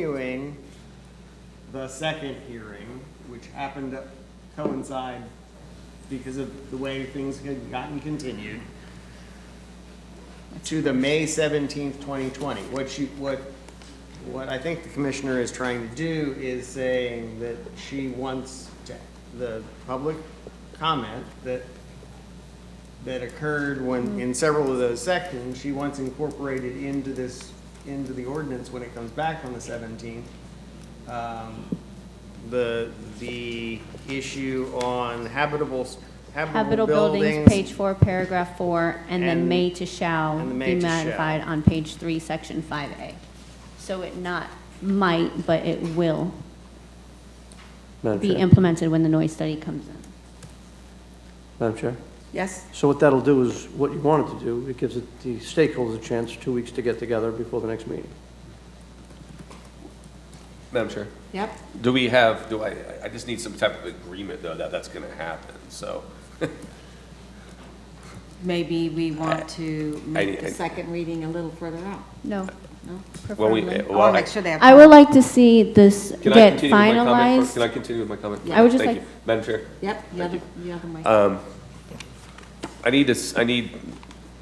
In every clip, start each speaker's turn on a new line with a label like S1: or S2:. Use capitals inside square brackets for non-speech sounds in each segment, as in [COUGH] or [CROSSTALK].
S1: continuing the second hearing, which happened to coincide because of the way things had gotten continued, to the May seventeenth, twenty twenty. What you, what, what I think the commissioner is trying to do is saying that she wants to- the public comment that, that occurred when, in several of those sections, she wants incorporated into this, into the ordinance when it comes back on the seventeenth. Um, The, the issue on habitable,
S2: Habitable
S1: habitable
S2: buildings, page four, paragraph four, and then
S1: And-
S2: may to shall
S1: and the may
S2: be
S1: to shall.
S2: modified on page three, section five A. So it not might, but it will
S3: Madam
S2: be
S3: Chair.
S2: implemented when the noise study comes in.
S3: Madam Chair.
S4: Yes,
S3: So what that'll do is, what you wanted to do, it gives it- the stakeholders a chance, two weeks to get together before the next meeting.
S5: Madam Chair,
S4: yep.
S5: do we have, do I, I- I just need some type of agreement, though, that that's going to happen, so.
S4: Maybe we want to make the
S5: I-
S4: second reading a little further out,
S2: No,
S4: no?
S5: when we-
S2: preferably.
S4: I
S5: well,
S4: want to make sure they have.
S2: I would like to see this
S5: Can I
S2: get
S5: continue with my comment first? Can I
S2: finalized.
S5: continue with my comment?
S4: Yeah. I would
S2: just
S5: Thank
S2: like-
S5: you. Madam Chair,
S4: Yep, the other, the other mic.
S5: Uh, I need this, I need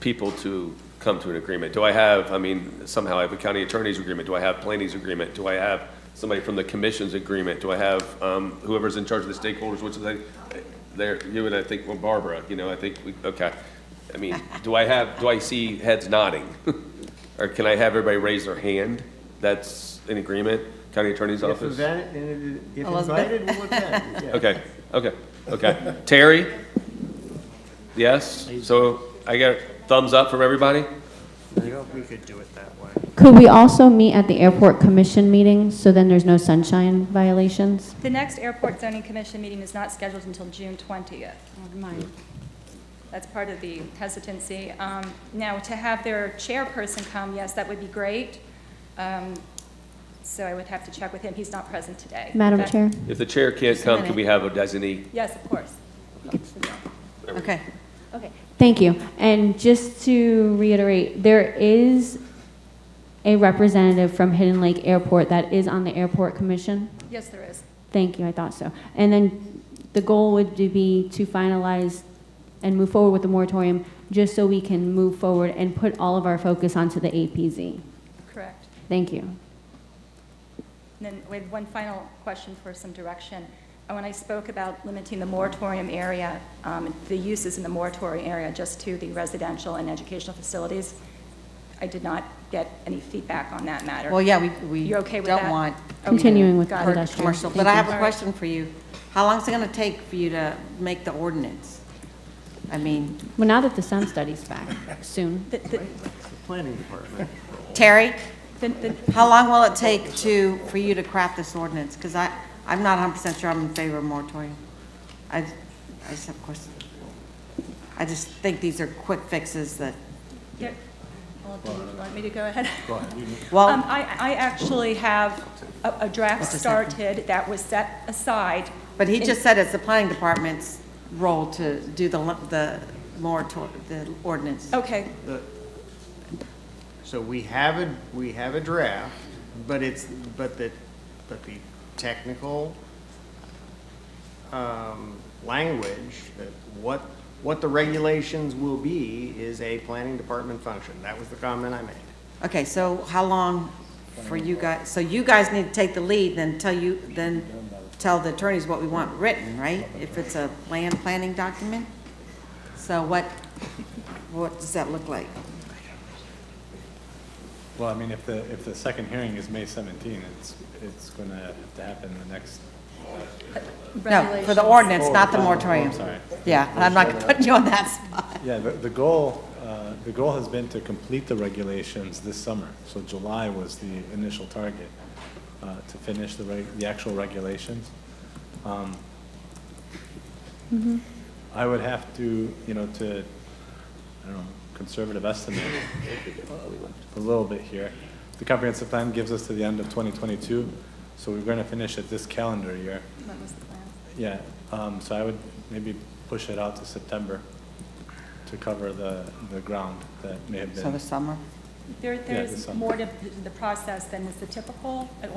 S5: people to come to an agreement. Do I have, I mean, somehow I have a county attorney's agreement, do I have planning's agreement? Do I have somebody from the commission's agreement? Do I have um, whoever's in charge of the stakeholders, which is like, there, you and I think, well, Barbara, you know, I think, we okay. I mean, do I have, do I see heads nodding? [LAUGHS] Or can I have everybody raise their hand? That's in agreement, county attorney's
S1: If
S5: office?
S1: event- if
S4: Elizabeth.
S1: invited, we'll attend. yeah.
S5: Okay, okay, okay. Terry? Yes? So I got thumbs up from everybody?
S1: We could do it that way.
S2: Could we also meet at the airport commission meeting, so then there's no sunshine violations?
S6: The next Airport Zoning Commission meeting is not scheduled until June 20th.
S4: Mine.
S6: That's part of the hesitancy. Um, Now, to have their chairperson come, yes, that would be great. Um, So I would have to check with him. He's not present today.
S2: Madam
S6: But-
S2: Chair?
S5: If the chair can't come, can we have a designee?
S6: Yes, of course.
S4: Okay,
S2: Okay, thank you. And just to reiterate, there is a representative from Hidden Lake Airport that is on the airport commission.
S6: Yes, there is.
S2: Thank you, I thought so. And then the goal would be to finalize and move forward with the moratorium, just so we can move forward and put all of our focus onto the APZ.
S6: Correct.
S2: Thank you.
S6: And then we have one final question for some direction. Uh, When I spoke about limiting the moratorium area, um, the uses in the moratorium area just to the residential and educational facilities, I did not get any feedback on that matter.
S4: well, yeah, we, we
S6: You're okay with
S4: don't
S6: that?
S4: want.
S2: Continuing with
S6: Got it.
S2: Industrial.
S4: Commercial, but
S2: Thank
S4: I
S2: you.
S4: have a question for you. How long is it going to take for you to make the ordinance? I mean,
S2: Well, now that the sun study's back soon,
S6: The- the-
S1: Planning department.
S4: Terry,
S6: the- the-
S4: how long will it take to, for you to craft this ordinance? Because I, I'm not 100% sure I'm in favor of moratorium. I, I just have questions. I just think these are quick fixes that,
S6: yeah. Well, do you want me to go ahead?
S4: well.
S6: Um, I, I actually have a a draft
S4: Just a second.
S6: started that was set aside.
S4: But he just said it's the planning department's role to do the, lo- the moratorium, the ordinance.
S6: Okay,
S1: So we have a, we have a draft, but it's, but the, but the technical um, language, that what, what the regulations will be is a planning department function. That was the comment I made.
S4: Okay, so how long for you guys, so you guys need to take the lead, then tell you, then tell the attorneys what we want written, right? If it's a land planning document? So what, what does that look like?
S7: Well, I mean, if the, if the second hearing is May 17, it's, it's going to have to happen the next,
S4: No, for
S6: regulations.
S4: the ordinance, not the
S7: Oh, oh,
S4: moratorium.
S7: I'm sorry.
S4: Yeah, and I'm not putting you on that spot.
S7: yeah, the, the goal, uh, the goal has been to complete the regulations this summer. So July was the initial target uh, to finish the, reg- the actual regulations. Um, I would have to, you know, to, I don't know, conservative estimate, a little bit here. The comprehensive plan gives us to the end of 2022, so we're going to finish it this calendar year.
S6: That was the plan.
S7: Yeah, um, so I would maybe push it out to September to cover the, the ground that may have
S4: So the
S7: been
S4: summer,
S6: There,
S7: there's
S6: there's
S7: some.
S6: more to the process than is the typical,